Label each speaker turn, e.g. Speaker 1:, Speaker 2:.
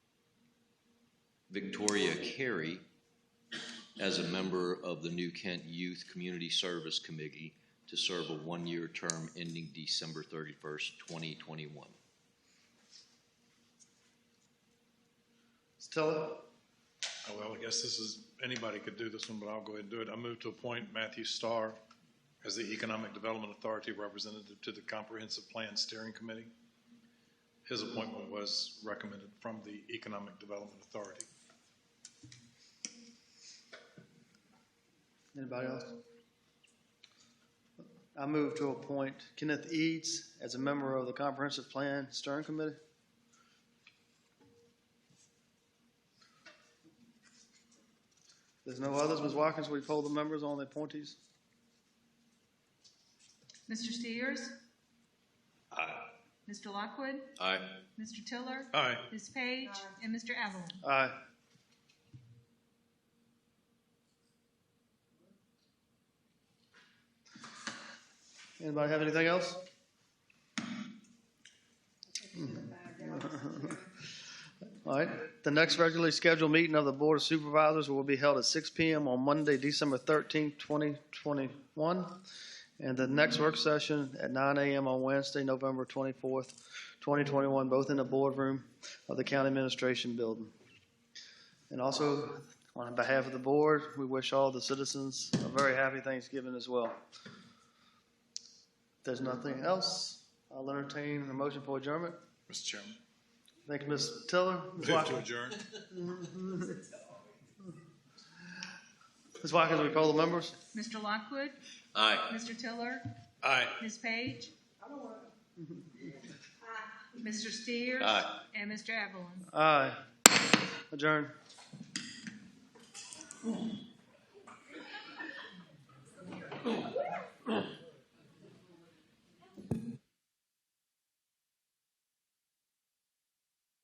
Speaker 1: Victoria Carey as a member of the New Kent Youth Community Service Committee to serve a one-year term ending December 31st, 2021.
Speaker 2: Stella? Oh, Well, I guess this is, anybody could do this one, but I'll go ahead and do it. I move to appoint Matthew Starr as the Economic Development Authority Representative to the Comprehensive Plan Steering Committee. His appointment was recommended from the Economic Development Authority.
Speaker 3: Anybody else? I move to appoint Kenneth Eads as a member of the Comprehensive Plan Steering Committee. There's no others. Ms. Watkins, will you poll the members on the appointees?
Speaker 4: Mr. Steers? Aye. Mr. Lockwood?
Speaker 1: Aye.
Speaker 4: Mr. Tiller?
Speaker 2: Aye.
Speaker 4: Ms. Page? And Mr. Evelyn?
Speaker 3: Aye. Anybody have anything else? All right, the next regularly scheduled meeting of the Board of Supervisors will be held at six P M on Monday, December thirteenth, twenty twenty-one. And the next work session at nine A M on Wednesday, November twenty-fourth, twenty twenty-one, both in the boardroom of the County Administration Building. And also, on behalf of the board, we wish all the citizens a very happy Thanksgiving as well. If there's nothing else, I'll entertain a motion for adjournment.
Speaker 2: Mr. Chairman.
Speaker 3: Thank you, Ms. Tiller. Ms.
Speaker 2: Move to
Speaker 3: Watkins,
Speaker 2: adjourn.
Speaker 3: Ms. Watkins, we poll the members?
Speaker 4: Mr. Lockwood?
Speaker 1: Aye.
Speaker 4: Mr. Tiller?
Speaker 2: Aye.
Speaker 4: Ms. Page? Mr. Steers?
Speaker 1: Aye.
Speaker 4: And Mr. Evelyn?
Speaker 3: Aye. Adjourn.